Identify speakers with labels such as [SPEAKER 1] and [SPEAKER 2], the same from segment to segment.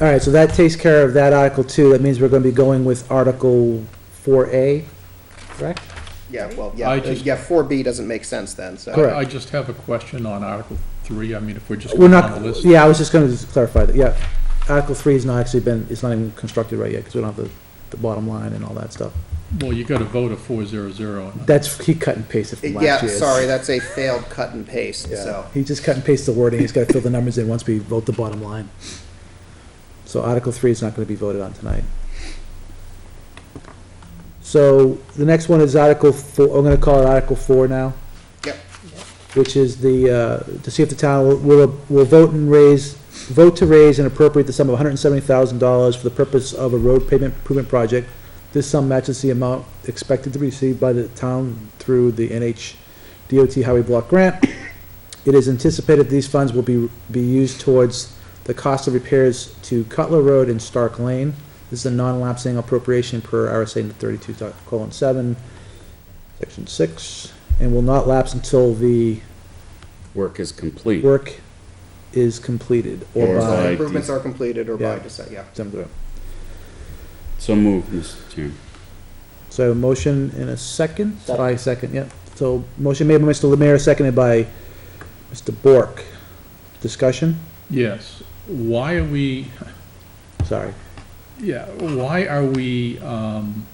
[SPEAKER 1] All right, so that takes care of that Article Two. That means we're going to be going with Article Four A, correct?
[SPEAKER 2] Yeah, well, yeah,
[SPEAKER 3] I
[SPEAKER 2] uh,
[SPEAKER 3] just-
[SPEAKER 2] yeah, four B doesn't make sense then, so.
[SPEAKER 1] Correct.
[SPEAKER 3] I just have a question on Article Three, I mean, if we're just
[SPEAKER 1] We're
[SPEAKER 3] going on
[SPEAKER 1] not,
[SPEAKER 3] the list.
[SPEAKER 1] yeah, I was just going to clarify that, yeah. Article Three has not actually been, it's not even constructed right yet because we don't have the, the bottom line and all that stuff.
[SPEAKER 3] Well, you got to vote a four zero zero.
[SPEAKER 1] That's, he cut and pasted from last
[SPEAKER 2] Yeah,
[SPEAKER 1] year's.
[SPEAKER 2] sorry, that's a failed cut and paste,
[SPEAKER 1] Yeah.
[SPEAKER 2] so.
[SPEAKER 1] He just cut and pasted the wording, he's gotta fill the numbers in once we vote the bottom line. So Article three is not gonna be voted on tonight. So the next one is Article four, I'm gonna call it Article four now.
[SPEAKER 2] Yep.
[SPEAKER 1] Which is the, uh, to see if the town will- will, will vote and raise, vote to raise and appropriate the sum of hundred and seventy thousand dollars for the purpose of a road pavement improvement project. This sum matches the amount expected to be received by the town through the NH DOT Highway Block Grant. It is anticipated these funds will be, be used towards the cost of repairs to Cutler Road and Stark Lane. This is a non-lapsing appropriation per RSA thirty-two colon seven, section six, and will not lapse until the
[SPEAKER 4] Work is complete.
[SPEAKER 1] work is completed or
[SPEAKER 4] Or
[SPEAKER 2] So
[SPEAKER 1] by.
[SPEAKER 4] by-
[SPEAKER 2] Improvements are completed or by,
[SPEAKER 1] Yeah.
[SPEAKER 2] deci- yeah.
[SPEAKER 1] Some group.
[SPEAKER 4] So move, Mr. Chairman.
[SPEAKER 1] So motion in a second, by second, yeah. So motion made by Mr. Lemire, seconded by Mr. Bork. Discussion?
[SPEAKER 3] Yes, why are we,
[SPEAKER 1] Sorry.
[SPEAKER 3] yeah, why are we, um,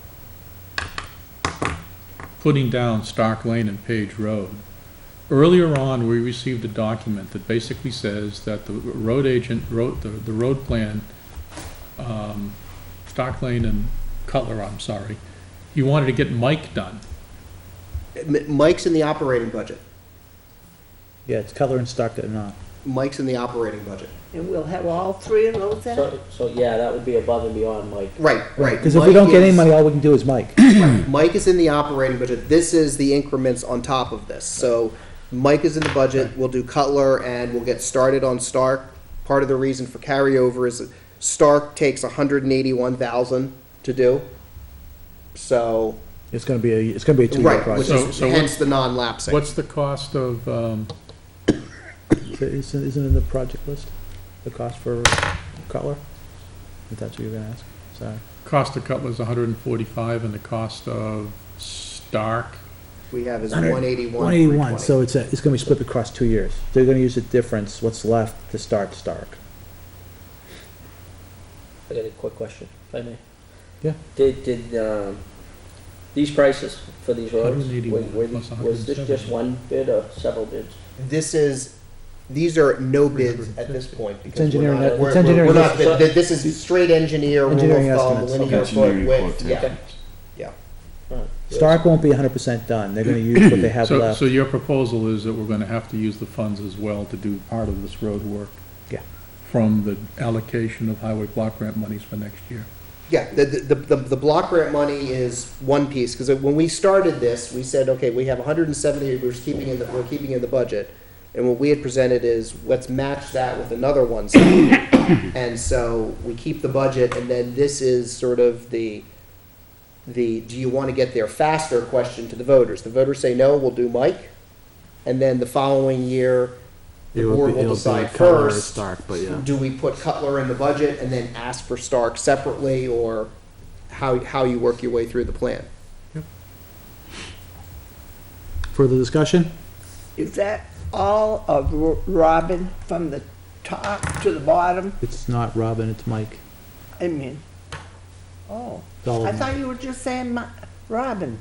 [SPEAKER 3] putting down Stark Lane and Page Road? Earlier on, we received a document that basically says that the road agent wrote the, the road plan, um, Stark Lane and Cutler, I'm sorry. He wanted to get Mike done.
[SPEAKER 2] M- Mike's in the operating budget.
[SPEAKER 1] Yeah, it's color and stock that are not.
[SPEAKER 2] Mike's in the operating budget.
[SPEAKER 5] And we'll have all three of those then?
[SPEAKER 6] So, so, yeah, that would be above and beyond, Mike.
[SPEAKER 2] Right, right.
[SPEAKER 1] Because if we
[SPEAKER 2] Mike
[SPEAKER 1] don't get any
[SPEAKER 2] is-
[SPEAKER 1] money, all we can do is Mike.
[SPEAKER 2] Mike is in the operating budget. This is the increments on top of this. So Mike is in the budget. We'll do Cutler and we'll get started on Stark. Part of the reason for carryover is that Stark takes hundred and eighty-one thousand to do. So,
[SPEAKER 1] It's gonna be a, it's gonna be a two-year
[SPEAKER 2] right, which
[SPEAKER 1] project.
[SPEAKER 3] So-
[SPEAKER 2] is
[SPEAKER 3] so
[SPEAKER 2] hence the non-lapsing.
[SPEAKER 3] What's the cost of, um,
[SPEAKER 1] So Isn't, isn't it in the project list, the cost for Cutler? If that's what you're gonna ask, sorry.
[SPEAKER 3] Cost of Cutler's hundred and forty-five, and the cost of Stark,
[SPEAKER 2] We have is one eighty-one.
[SPEAKER 1] One eighty-one, so it's, a- it's gonna be split across two years. They're gonna use the difference, what's left, to start Stark.
[SPEAKER 6] I got a quick question, if I may.
[SPEAKER 1] Yeah.
[SPEAKER 6] Did, did, um, these prices for these roads, were,
[SPEAKER 3] 181
[SPEAKER 6] were,
[SPEAKER 3] plus
[SPEAKER 6] was this just
[SPEAKER 3] 170.
[SPEAKER 6] one bid or several bids?
[SPEAKER 2] This is, these are no bids at this point. because we're
[SPEAKER 1] engineering
[SPEAKER 2] not-
[SPEAKER 1] estimates.
[SPEAKER 2] we're-
[SPEAKER 1] It's engineering
[SPEAKER 2] We're not,
[SPEAKER 6] estimates.
[SPEAKER 2] th- this is straight engineer, rule
[SPEAKER 1] Engineering
[SPEAKER 2] of thumb,
[SPEAKER 1] estimates,
[SPEAKER 2] linear
[SPEAKER 4] okay.
[SPEAKER 2] foot
[SPEAKER 4] Engineering
[SPEAKER 2] width,
[SPEAKER 4] quotation.
[SPEAKER 2] yeah,
[SPEAKER 6] Okay.
[SPEAKER 2] yeah.
[SPEAKER 6] Alright.
[SPEAKER 1] Stark won't be hundred percent done, they're gonna use what they have
[SPEAKER 3] so,
[SPEAKER 1] left.
[SPEAKER 3] so your proposal is that we're gonna have to use the funds as well to do part of this road work?
[SPEAKER 1] Yeah.
[SPEAKER 3] From the allocation of highway block grant monies for next year?
[SPEAKER 2] Yeah, the, the, the, the block grant money is one piece, because when we started this, we said, okay, we have hundred and seventy, we're just keeping in the, we're keeping in the budget. And what we had presented is, let's match that with another one. And so we keep the budget, and then this is sort of the, the, do you want to get there faster question to the voters. The voters say, no, we'll do Mike, and then the following year, the
[SPEAKER 7] It would
[SPEAKER 2] board
[SPEAKER 7] be-
[SPEAKER 2] will
[SPEAKER 7] it'll be
[SPEAKER 2] decide
[SPEAKER 7] Cutler or
[SPEAKER 2] first.
[SPEAKER 7] Stark, but yeah.
[SPEAKER 2] Do we put Cutler in the budget and then ask for Stark separately, or how, how you work your way through the plan?
[SPEAKER 1] Further discussion?
[SPEAKER 5] Is that all of Ro- Robin from the top to the bottom?
[SPEAKER 1] It's not Robin, it's Mike.
[SPEAKER 5] I mean, oh,
[SPEAKER 1] It's all
[SPEAKER 5] I
[SPEAKER 1] of Mike.
[SPEAKER 5] thought you were just saying Mi- Robin.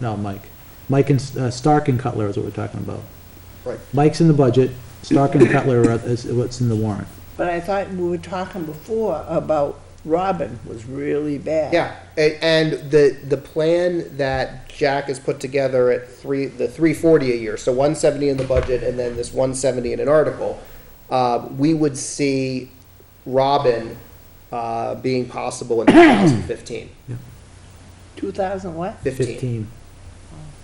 [SPEAKER 1] No, Mike. Mike and, S- uh, Stark and Cutler is what we're talking about.
[SPEAKER 2] Right.
[SPEAKER 1] Mike's in the budget, Stark and Cutler are, is what's in the warrant.
[SPEAKER 5] But I thought we were talking before about Robin was really bad.
[SPEAKER 2] Yeah, a- and the, the plan that Jack has put together at three, the three forty a year, so one seventy in the budget and then this one seventy in an article, uh, we would see Robin, uh, being possible in two thousand fifteen,
[SPEAKER 5] 2000 what?
[SPEAKER 2] fifteen.
[SPEAKER 1] Fifteen.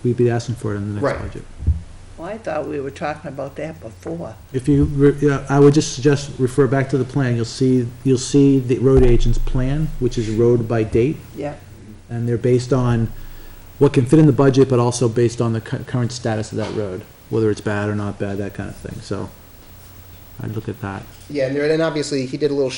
[SPEAKER 1] We'd be asking for it in the
[SPEAKER 2] Right.
[SPEAKER 1] next budget.
[SPEAKER 5] Well, I thought we were talking about that before.
[SPEAKER 1] If you, re- yeah, I would just suggest refer back to the plan. You'll see, you'll see the road agent's plan, which is road by date,
[SPEAKER 5] Yeah,
[SPEAKER 1] and they're based on what can fit in the budget, but also based on the cu- current status of that road, whether it's bad or not bad, that kind of thing. So I'd look at that.
[SPEAKER 2] Yeah, and there, and obviously, he did a little